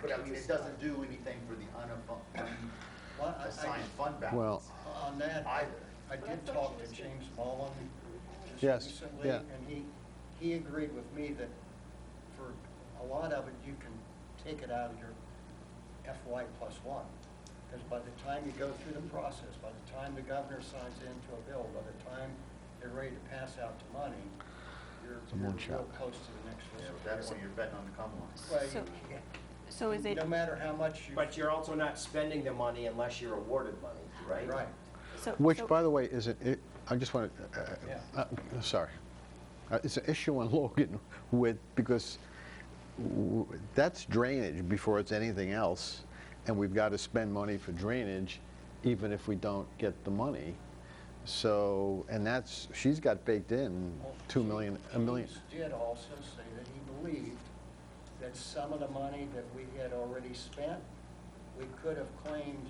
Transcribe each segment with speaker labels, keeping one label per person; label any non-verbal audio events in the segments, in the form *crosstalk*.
Speaker 1: But I mean, it doesn't do anything for the unassigned
Speaker 2: Well, I- I just-
Speaker 1: fund
Speaker 3: Well,
Speaker 1: balance
Speaker 2: On that, I
Speaker 1: either.
Speaker 2: I did talk to James Mullen
Speaker 3: Yes,
Speaker 2: just recently,
Speaker 3: yeah.
Speaker 2: and he, he agreed with me that for a lot of it, you can take it out of your FY plus one. Because by the time you go through the process, by the time the governor signs into a bill, by the time they're ready to pass out the money, you're
Speaker 3: a
Speaker 2: you're
Speaker 3: moonshot.
Speaker 2: real close to the next
Speaker 1: So
Speaker 2: fiscal
Speaker 1: that's when
Speaker 2: year.
Speaker 1: you're betting on the come ones.
Speaker 2: Well,
Speaker 4: So-
Speaker 2: you-
Speaker 4: So is it,
Speaker 2: No matter how much you.
Speaker 5: But you're also not spending the money unless you're awarded money, right?
Speaker 2: Right.
Speaker 4: so.
Speaker 3: Which,
Speaker 4: so-
Speaker 3: by the way, is it, it- I just uh, want
Speaker 2: Yeah.
Speaker 3: to, uh, sorry. Uh, It's an issue on *laughs* Logan with, because w- that's drainage before it's anything else, and we've got to spend money for drainage even if we don't get the money. So, and that's, she's got baked in 2 million, a million.
Speaker 2: Keynes did also say that he believed that some of the money that we had already spent, we could have claimed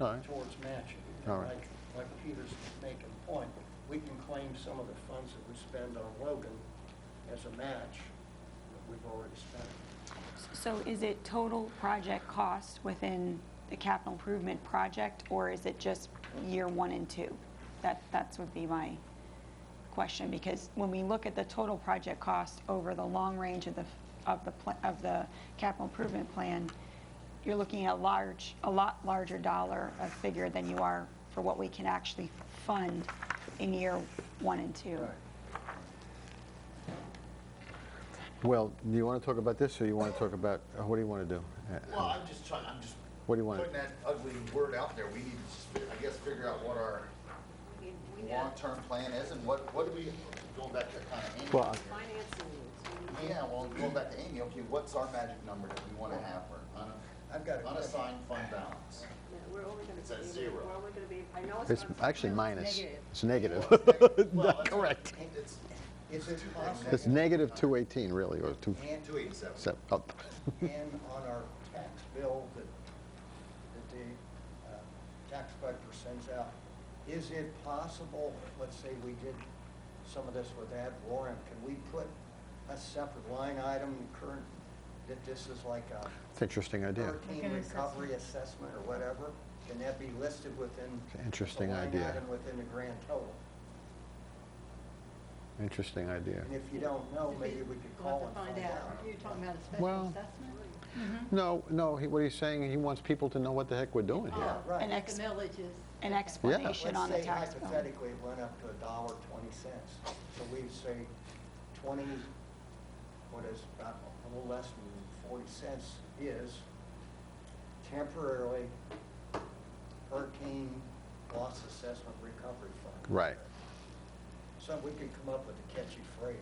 Speaker 3: All right.
Speaker 2: towards matching.
Speaker 3: All right.
Speaker 2: Like- Like Peter's making point, we can claim some of the funds that we spend on Logan as a match that we've already spent.
Speaker 4: So is it total project cost within the capital improvement project, or is it just year one and two? That, that's would be my question, because when we look at the total project cost over the long range of the, of the, pla- of the capital improvement plan, you're looking at large, a lot larger dollar of figure than you are for what we can actually fund in year one and two.
Speaker 3: Well, do you want to talk about this, or you want to talk about, uh, what do you want to do? Uh,
Speaker 1: Well, I'm just trying, I'm just.
Speaker 3: What do you want?
Speaker 1: Putting that ugly word out there. We need to, just, I guess, figure out what our
Speaker 6: We we know
Speaker 1: long-term plan is and what, what do we, going back to kind of Amy.
Speaker 3: Well, I-
Speaker 6: financing needs. We need-
Speaker 1: Yeah, well, going back to Amy, okay, what's our magic number that we want to have for un-
Speaker 2: I've got a question.
Speaker 1: unassigned fund balance?
Speaker 6: yeah, We're only going to be.
Speaker 1: It's at zero.
Speaker 6: We're only going to be, I know it's.
Speaker 3: It's
Speaker 6: not-
Speaker 3: actually
Speaker 6: no,
Speaker 3: minus.
Speaker 6: negative.
Speaker 3: It's negative.
Speaker 1: Well,
Speaker 3: Not
Speaker 1: it's-
Speaker 3: correct.
Speaker 1: It's
Speaker 2: Is it
Speaker 3: *laughs* It's
Speaker 2: possible,
Speaker 3: negative 218, really, or 2,
Speaker 2: and,
Speaker 1: two eighty-seven.
Speaker 3: se- up.
Speaker 2: and on our tax bill that, that the uh, tax collector sends out, is it possible, let's say we did some of this with ad Warren, can we put a separate line item current, that this is like a
Speaker 3: It's an interesting idea.
Speaker 2: hurricane recovery assessment or whatever? Can that be listed within?
Speaker 3: It's an interesting
Speaker 2: the line
Speaker 3: idea.
Speaker 2: item within the grand total?
Speaker 3: Interesting idea.
Speaker 2: And if you don't know, Oh, maybe we could
Speaker 6: We'll
Speaker 2: call
Speaker 6: have to
Speaker 2: and
Speaker 6: find out.
Speaker 2: out.
Speaker 6: You're talking about a
Speaker 3: Well-
Speaker 6: special assessment?
Speaker 3: No, no, he- what he's saying, he wants people to know what the heck we're doing here.
Speaker 6: Oh,
Speaker 2: right.
Speaker 6: like
Speaker 4: An ex-
Speaker 6: The millage is.
Speaker 4: An explanation on the tax
Speaker 2: Let's
Speaker 4: bill.
Speaker 2: say hypothetically it went up to a dollar twenty cents, so we'd say twenty, what is, about a little less than forty cents is temporarily hurricane loss assessment recovery fund.
Speaker 3: Right.
Speaker 2: So we could come up with a catchy phrase.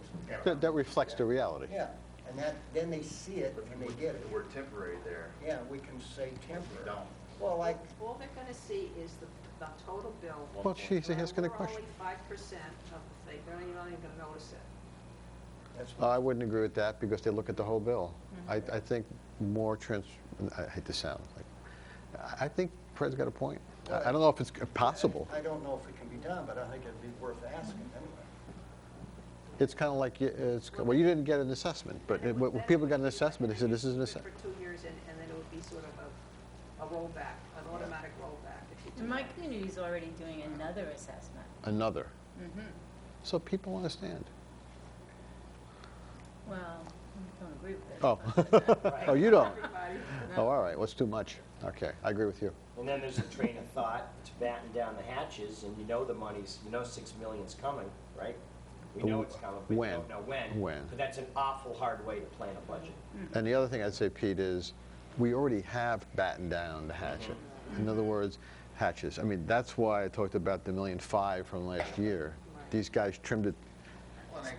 Speaker 3: That that reflects the reality.
Speaker 2: Yeah, and that, then they see it and they get it.
Speaker 1: The word temporary there.
Speaker 2: Yeah, we can say temporary.
Speaker 1: Don't.
Speaker 2: Well, like,
Speaker 6: All they're going to see is the, the total bill.
Speaker 3: Well, she's asking a question.
Speaker 6: We're only five percent of the thing. They're not even going to notice it.
Speaker 2: that's what.
Speaker 3: I wouldn't agree with that because they look at the whole bill. I, I think more trans, I hate to sound like, I- I think Fred's got a point. I I don't know if it's possible.
Speaker 2: I don't know if it can be done, but I think it'd be worth asking anyway.
Speaker 3: It's kind of like, you- it's, well, you didn't get an assessment, but it- when people got an assessment, they said, this is an assessment.
Speaker 6: For two years, and, and then it would be sort of a, a rollback, an automatic rollback if you do
Speaker 7: And My
Speaker 6: that.
Speaker 7: community's already doing another assessment.
Speaker 3: another. So people understand.
Speaker 7: Well, I don't agree with it.
Speaker 3: Oh, oh, you don't?
Speaker 1: *laughs*
Speaker 3: Oh, all right, what's too much? Okay, I agree with you.
Speaker 5: And then there's a train of thought to batten down the hatches, and you know the money's, you know six million's coming, right? We know it's coming, but we
Speaker 3: When?
Speaker 5: don't know when.
Speaker 3: When?
Speaker 5: But that's an awful hard way to plan a budget.
Speaker 3: And the other thing I'd say, Pete, is we already have battened down the hatchet. In other words, hatches. I mean, that's why I talked about the million five from last year. These guys trimmed it
Speaker 1: Well, and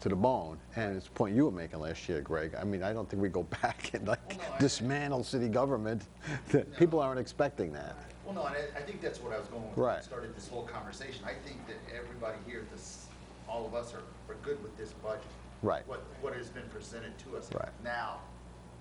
Speaker 3: to the bone, and it's the point you were making last year, Greg. I mean, I don't think we go *laughs* back and
Speaker 1: Well, no, I-
Speaker 3: like dismantle city government. *laughs* People aren't expecting that.
Speaker 1: I- Well, no, and I, I think that's what I was going with. when I
Speaker 3: Right.
Speaker 1: Started this whole conversation. I think that everybody here, this, all of us are, are good with this budget.
Speaker 3: Right.
Speaker 1: What, what has been presented to us.
Speaker 3: Right.
Speaker 1: Now,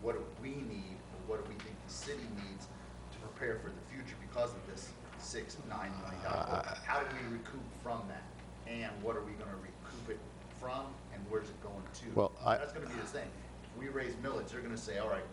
Speaker 1: what do we need, and what do we think the city needs to prepare for the future because of this six, nine million
Speaker 3: Uh,
Speaker 1: dollar? bill? How do we recoup from that? And what are we gonna recoup it from, and where's it going to?
Speaker 3: Well, I-
Speaker 1: That's gonna be the thing. If we raise millage, they're gonna say, all right,